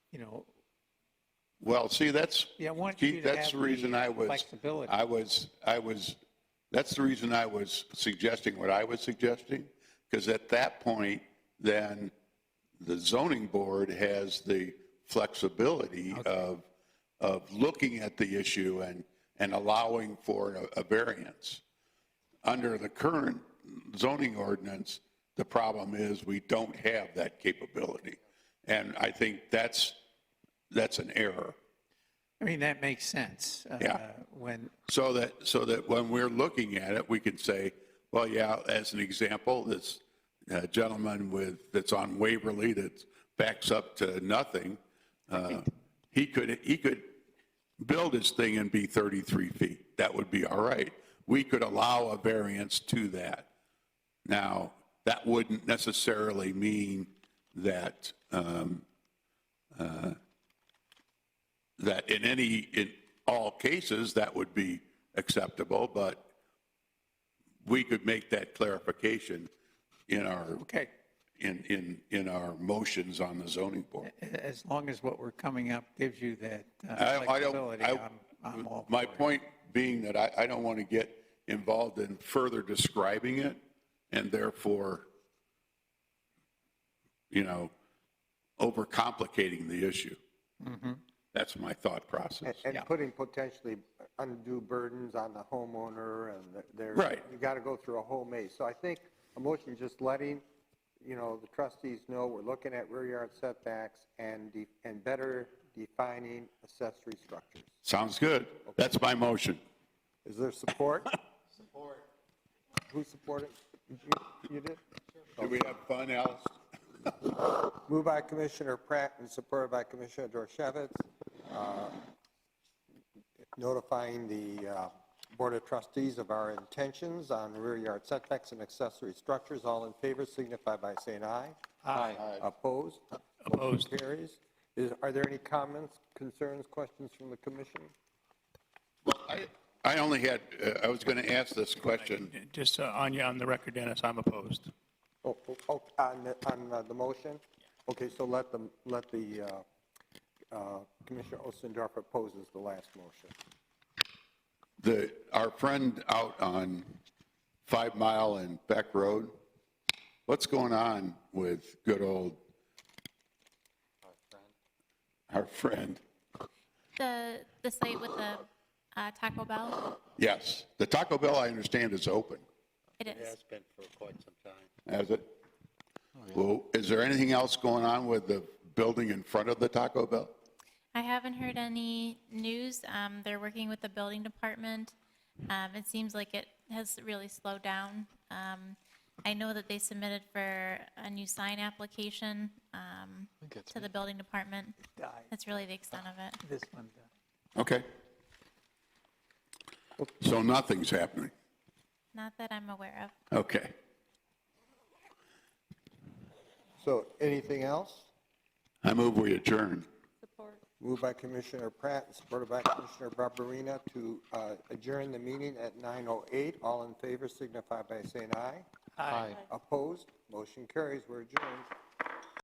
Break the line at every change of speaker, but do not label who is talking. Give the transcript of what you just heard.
you know,
Well, see, that's,
Yeah, I want you
Keith,
to have
that's the
the
reason I was,
flexibility.
I was, I was, that's the reason I was suggesting what I was suggesting, because at that point, then the zoning board has the flexibility of, of looking at the issue and, and allowing for a- a variance. Under the current zoning ordinance, the problem is we don't have that capability. And I think that's, that's an error.
I mean, that makes sense. uh,
Yeah.
When,
So that, so that when we're looking at it, we can say, well, yeah, as an example, this uh, gentleman with, that's on Waverly that backs up to nothing, uh, he could, he could build his thing and be 33 feet. That would be all right. We could allow a variance to that. Now, that wouldn't necessarily mean that, um, uh, that in any, in all cases, that would be acceptable, but we could make that clarification in our,
okay,
in, in, in our motions on the zoning board.
a- as long as what we're coming up gives you that uh,
I- I don't-
flexibility,
I-
I'm, I'm all
My point being that I, I don't want to get involved in further describing it, and therefore, you know, overcomplicating the issue. That's my thought process.
And, and putting potentially undue burdens on the homeowner and the- their.
Right.
You got to go through a whole maze. So I think a motion just letting, you know, the trustees know we're looking at rear yard setbacks and, de- and better defining accessory structures.
Sounds good. That's my motion.
Is there support? Support. Who supported? You- You did?
Did we have fun, Alice?
Moved by Commissioner Pratt and supported by Commissioner Dorchevitz, uh, notifying the uh, Board of Trustees of our intentions on rear yard setbacks and accessory structures. All in favor signify by saying aye. Aye. Opposed? Opposed. Carries. Is- Are there any comments, concerns, questions from the commission?
I I only had, uh, I was going to ask this question.
Just uh, on, on the record, Dennis, I'm opposed.
Oh, oh, oh, On, the- on uh, the motion? Okay, so let the, let the uh, uh, Commissioner Ostendorf opposes the last motion.
The, our friend out on Five Mile and Beck Road, what's going on with good old? Our friend,
The, the site with the uh, Taco Bell?
yes. The Taco Bell, I understand, is open,
It is.
has it? Well, is there anything else going on with the building in front of the Taco Bell?
I haven't heard any news. Um, They're working with the building department. Um, It seems like it has really slowed down. Um, I know that they submitted for a new sign application um, to the building department.
Died.
That's really the extent of it.
This one, uh,
Okay. So nothing's happening,
Not that I'm aware of.
okay.
So anything else?
I move we adjourn.
Moved by Commissioner Pratt, and supported by Commissioner Barberina to uh, adjourn the meeting at 9:08. All in favor signify by saying aye. Aye. Opposed? Motion carries. We're adjourned.